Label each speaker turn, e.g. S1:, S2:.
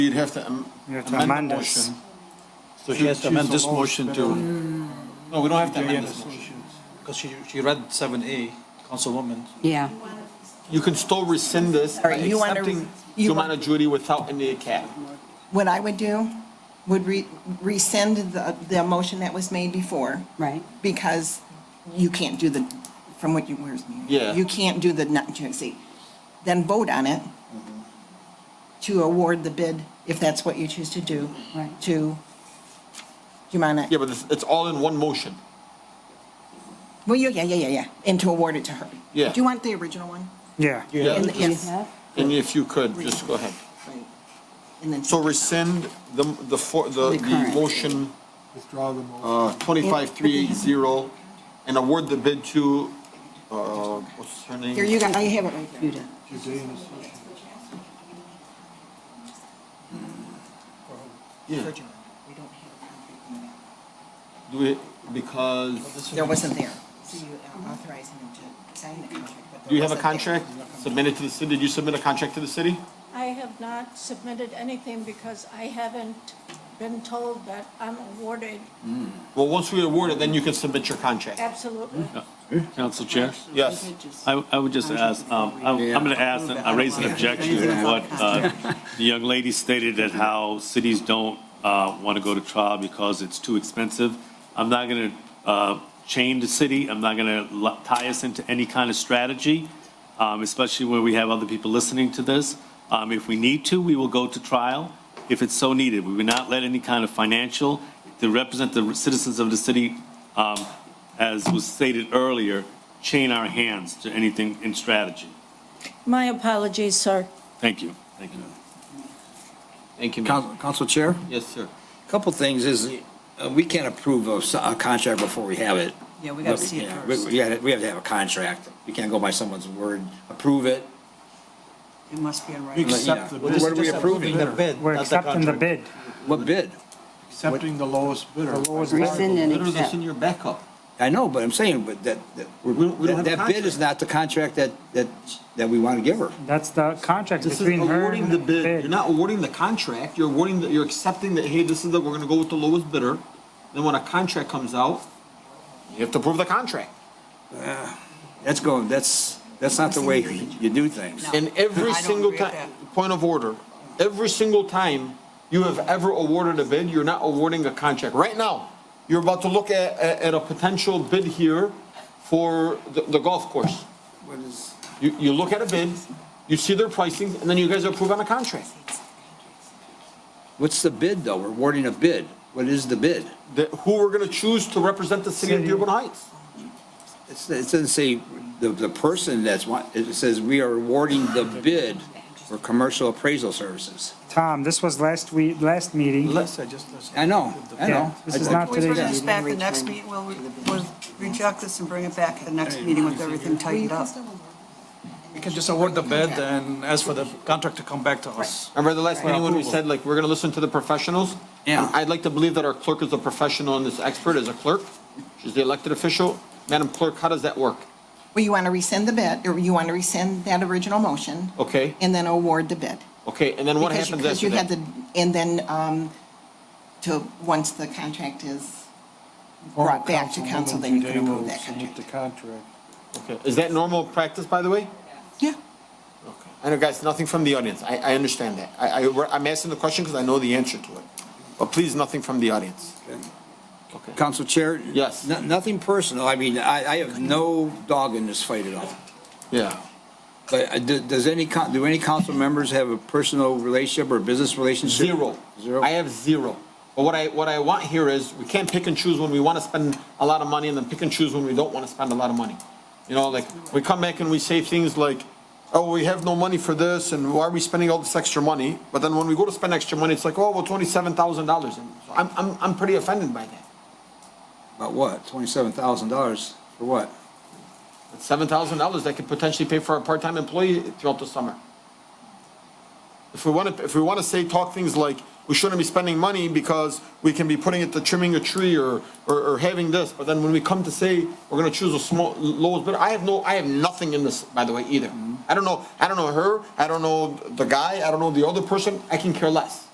S1: You'd have to am-
S2: You have to
S1: amend
S2: amend
S1: the
S2: it.
S1: motion. Mm.
S3: So she has to amend this motion to,
S1: No, we don't have to
S2: Yeah,
S1: amend
S2: the
S1: this motion.
S2: solutions.
S3: because she, she read seven A, Councilwoman.
S4: Yeah,
S1: You can still rescind this by
S5: Sorry, you wanna-
S1: accepting
S5: you
S1: Jumana Judy without any cap.
S5: What I would do would re- rescind the, the motion that was made before
S4: right.
S5: because you can't do the, from what you, where's me?
S1: Yeah.
S5: You can't do the not to exceed. Then vote on it
S1: Mm-hmm.
S5: to award the bid, if that's what you choose to do,
S4: Right.
S5: to Jumana.
S1: Yeah, but it's, it's all in one motion.
S5: Well, yeah, yeah, yeah, yeah, yeah, and to award it to her.
S1: Yeah.
S5: Do you want the original one?
S2: Yeah,
S1: Yeah,
S5: And the-
S4: Do you
S5: yes.
S4: have?
S1: and if you could, just go ahead.
S5: Right. And then.
S1: So rescind the, the, for- the,
S4: The
S1: the
S4: current.
S1: motion. Withdraw the motion. Uh, twenty-five, three, eight, zero, and award the bid to, uh, what's her name?
S5: Here, you got, I have it right there.
S4: Judah.
S1: Yeah.
S5: For Jumana. We don't have it.
S1: Do it because,
S5: There wasn't there. So you are authorizing him to sign the contract, but there
S1: do you have a
S5: wasn't there.
S1: contract submitted to the city? Did you submit a contract to the city?
S6: I have not submitted anything because I haven't been told that I'm awarded,
S1: Well, once we award it, then you can submit your contract.
S6: absolutely.
S7: Council Chair,
S1: Yes.
S7: I, I would just ask, um, I'm, I'm gonna ask, I raise an objection to what, uh, the young lady stated that how cities don't, uh, wanna go to trial because it's too expensive. I'm not gonna, uh, chain the city, I'm not gonna lo- tie us into any kind of strategy, um, especially where we have other people listening to this. Um, if we need to, we will go to trial if it's so needed. We will not let any kind of financial, to represent the citizens of the city, um, as was stated earlier, chain our hands to anything in strategy.
S6: My apologies, sir.
S7: Thank you, thank you.
S1: Thank you, ma'am.
S8: Council Council Chair,
S1: Yes, sir.
S8: a couple things is, uh, we can't approve of s- a contract before we have it.
S5: Yeah, we gotta see it
S8: Yeah, we-
S5: first.
S8: We gotta- we have to have a contract. We can't go by someone's word, approve it.
S5: It must be in
S3: We
S5: writing.
S3: accept the bid.
S8: What are we
S3: Just
S8: approving?
S3: The bid,
S2: we're
S3: not the
S2: accepting the
S3: contract.
S2: bid.
S8: What bid?
S9: Accepting the lowest bidder.
S4: Rescind and
S1: Better
S4: accept.
S1: than your backup.
S8: I know, but I'm saying, but that, that,
S1: we don't have a
S8: that bid is not the contract that, that, that we want to give her.
S2: That's the contract
S1: This is
S2: between her
S1: awarding
S2: and
S1: the
S2: the
S1: bid. You're
S2: bid.
S1: not awarding the contract. You're awarding, the- you're accepting that, hey, this is the, we're gonna go with the lowest bidder. Then when a contract comes out, you have to approve the contract.
S8: That's going, that's, that's not the way you do things.
S1: And every
S5: I don't
S1: single
S5: agree with
S1: time, point of order, every single time you have ever awarded a bid, you're not awarding a contract. Right now, you're about to look at, at, at a potential bid here for the, the golf course. You, you look at a bid, you see their pricing, and then you guys approve on a contract.
S8: What's the bid, though? We're awarding a bid. What is the bid?
S1: That, who we're gonna choose to represent the city of
S2: City.
S1: Dearborn Heights.
S8: It's- It doesn't say the, the person that's, wa- it says we are awarding the bid for commercial appraisal services.
S2: Tom, this was last week, last meeting.
S9: Unless I just listen.
S8: I know, I
S2: Yeah,
S8: know.
S2: this is not
S10: Can we bring
S2: today's
S10: this back the next meeting, we'll, we'll reject this and bring it back at the next meeting with everything tightened up.
S3: We can just award the bid and ask for the contract to come back to us.
S1: Remember the last meeting when we said, like, we're gonna listen to the professionals?
S8: Yeah.
S1: I'd like to believe that our clerk is a professional and this expert is a clerk. She's the elected official. Madam Clerk, how does that work?
S5: Well, you want to rescind the bid, or you want to rescind that original motion
S1: Okay,
S5: and then award the bid.
S1: okay, and then what
S5: Because you-
S1: happens
S5: because
S1: after
S5: you
S1: that?
S5: had the, and then, um, to, once the contract is brought back to council, then you can approve that
S9: Today we'll submit
S5: contract.
S9: the contract.
S1: Okay. Is that normal practice, by the way?
S5: Yeah.
S1: I know, guys, nothing from the audience. I, I understand that. I, I, I'm asking the question because I know the answer to it. But please, nothing from the audience. Okay.
S8: Council Chair?
S1: Yes.
S8: no- Nothing personal, I mean, I, I have no dog in this fight at all.
S1: Yeah.
S8: But uh, do- does any, coun- do any council members have a personal relationship or business relationship?
S1: Zero.
S8: Zero?
S1: I have zero. But what I, what I want here is, we can't pick and choose when we want to spend a lot of money and then pick and choose when we don't want to spend a lot of money. You know, like, we come back and we say things like, oh, we have no money for this and why are we spending all this extra money? But then when we go to spend extra money, it's like, oh, well, twenty-seven thousand dollars. I'm, I'm, I'm pretty offended by that.
S8: About what, twenty-seven thousand dollars for what?
S1: It's seven thousand dollars that could potentially pay for a part-time employee throughout the summer. If we want to, if we want to say, talk things like, we shouldn't be spending money because we can be putting it to trimming a tree or, or, or having this, but then when we come to say, we're gonna choose a small, lowest bidder, I have no, I have nothing in this, by the way, either. I don't know, I don't know her, I don't know the guy, I don't know the other person, I can care less.